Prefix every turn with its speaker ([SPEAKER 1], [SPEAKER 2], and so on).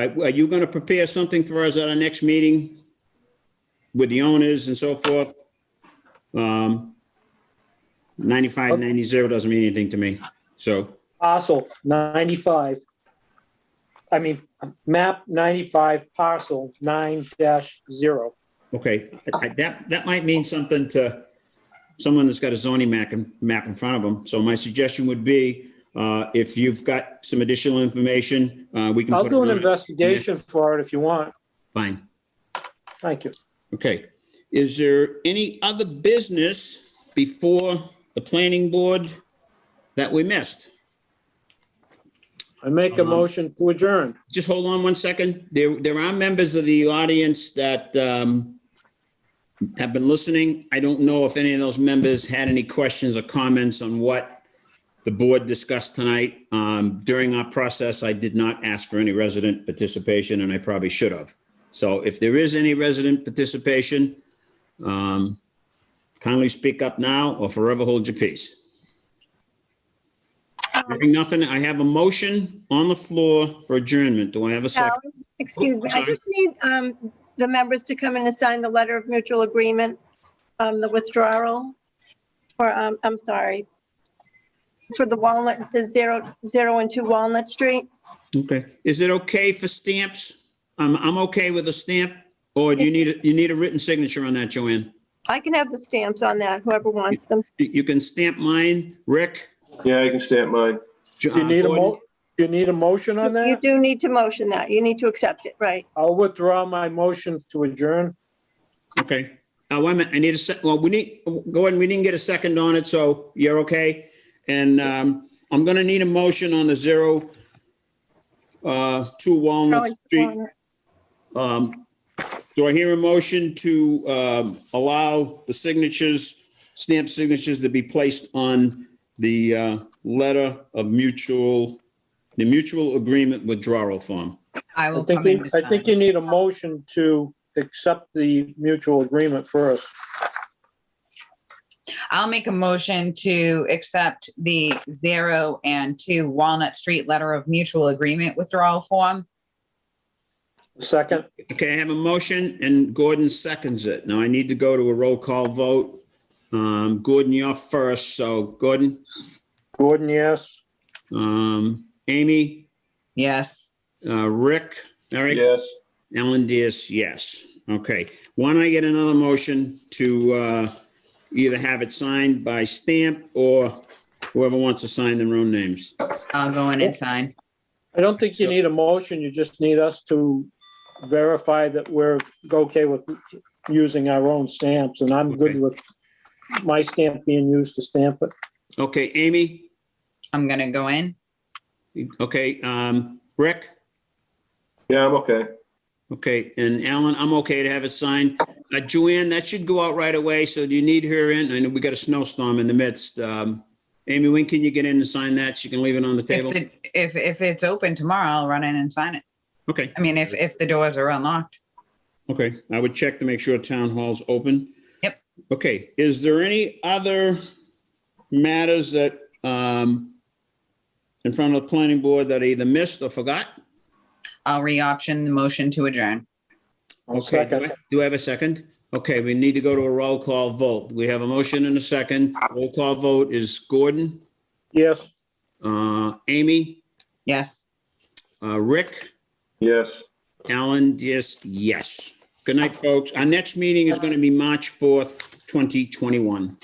[SPEAKER 1] Are are you going to prepare something for us at our next meeting with the owners and so forth? Um, 95, 90 doesn't mean anything to me, so,
[SPEAKER 2] parcel ninety-five. I mean, map ninety-five parcel nine dash zero.
[SPEAKER 1] okay. I- I- That, that might mean something to someone that's got a zoning map, in- map in front of them. So my suggestion would be, uh, if you've got some additional information, uh, we can.
[SPEAKER 2] I'll
[SPEAKER 1] put
[SPEAKER 2] do
[SPEAKER 1] it
[SPEAKER 2] an
[SPEAKER 1] on it.
[SPEAKER 2] investigation for it if you want.
[SPEAKER 1] Fine.
[SPEAKER 2] Thank you.
[SPEAKER 1] Okay, is there any other business before the planning board that we missed?
[SPEAKER 2] I make a
[SPEAKER 1] Um,
[SPEAKER 2] motion to adjourn.
[SPEAKER 1] Just hold on one second. There, there are members of the audience that um, have been listening. I don't know if any of those members had any questions or comments on what the board discussed tonight. Um, During our process, I did not ask for any resident participation, and I probably should have. So if there is any resident participation, um, kindly speak up now or forever hold your peace. Hearing nothing, I have a motion on the floor for adjournment. Do I have a second?
[SPEAKER 3] Sally, Excuse me, I
[SPEAKER 1] Sorry.
[SPEAKER 3] just need um, the members to come in and sign the letter of mutual agreement, um, the withdrawal. For, um, I'm sorry, for the Walnut, the zero, zero and two Walnut Street.
[SPEAKER 1] Okay, is it okay for stamps? I'm, I'm okay with a stamp, or do you need, a- you need a written signature on that, Joanne?
[SPEAKER 3] I can have the stamps on that, whoever wants them.
[SPEAKER 1] You you can stamp mine, Rick.
[SPEAKER 4] Yeah, I can stamp mine.
[SPEAKER 1] Jo- uh,
[SPEAKER 2] You need a
[SPEAKER 1] Gordon.
[SPEAKER 2] mo, you need a motion on
[SPEAKER 3] You
[SPEAKER 2] that?
[SPEAKER 3] do need to motion that, you need to accept it, right?
[SPEAKER 2] I'll withdraw my motion to adjourn.
[SPEAKER 1] Okay, uh, wait a minute, I need a sec, well, we need, go ahead, we didn't get a second on it, so you're okay? And, um, I'm gonna need a motion on the zero, uh, two Walnut Street. Um, do I hear a motion to, um, allow the signatures, stamp signatures to be placed on the, uh, letter of mutual, the mutual agreement withdrawal form?
[SPEAKER 5] I
[SPEAKER 2] I
[SPEAKER 5] will
[SPEAKER 2] think,
[SPEAKER 5] come in.
[SPEAKER 2] you-
[SPEAKER 5] to
[SPEAKER 2] I think
[SPEAKER 5] sign.
[SPEAKER 2] you need a motion to accept the mutual agreement first.
[SPEAKER 5] I'll make a motion to accept the zero and two Walnut Street Letter of Mutual Agreement withdrawal form.
[SPEAKER 2] Second,
[SPEAKER 1] Okay, I have a motion and Gordon seconds it. Now I need to go to a roll call vote. Um, Gordon, you're first, so Gordon,
[SPEAKER 2] Gordon, yes.
[SPEAKER 1] um, Amy,
[SPEAKER 5] Yes.
[SPEAKER 1] uh, Rick, Eric,
[SPEAKER 4] Yes,
[SPEAKER 1] Ellen Diaz, yes. Okay, why don't I get another motion to, uh, either have it signed by stamp or whoever wants to sign their own names?
[SPEAKER 5] I'll go in and sign.
[SPEAKER 2] I don't think you
[SPEAKER 1] So-
[SPEAKER 2] need a motion, you just need us to verify that we're okay with using our own stamps, and I'm
[SPEAKER 1] Okay.
[SPEAKER 2] good with my stamp being used to stamp it.
[SPEAKER 1] Okay, Amy,
[SPEAKER 5] I'm gonna go in.
[SPEAKER 1] okay, um, Rick?
[SPEAKER 4] yeah, I'm okay.
[SPEAKER 1] Okay, and Alan, I'm okay to have it signed. Uh, Joanne, that should go out right away, so do you need her in? I know we got a snowstorm in the midst. Um, Amy, when can you get in and sign that? She can leave it on the table.
[SPEAKER 5] If, it- if, if it's open tomorrow, I'll run in and sign it.
[SPEAKER 1] Okay,
[SPEAKER 5] I mean, if, if the doors are unlocked.
[SPEAKER 1] okay. I would check to make sure town hall's open.
[SPEAKER 5] Yep.
[SPEAKER 1] Okay, is there any other matters that, um, in front of the planning board that I either missed or forgot?
[SPEAKER 5] I'll re-option the motion to adjourn.
[SPEAKER 2] I'll
[SPEAKER 1] Okay, do
[SPEAKER 2] second.
[SPEAKER 1] I- do I have a second? Okay, we need to go to a roll call vote. We have a motion and a second. Roll call vote is Gordon.
[SPEAKER 2] Yes.
[SPEAKER 1] Uh, Amy,
[SPEAKER 5] Yes.
[SPEAKER 1] uh, Rick,
[SPEAKER 4] Yes.
[SPEAKER 1] Alan, yes, yes. Good night, folks. Our next meeting is going to be March 4th, 2021.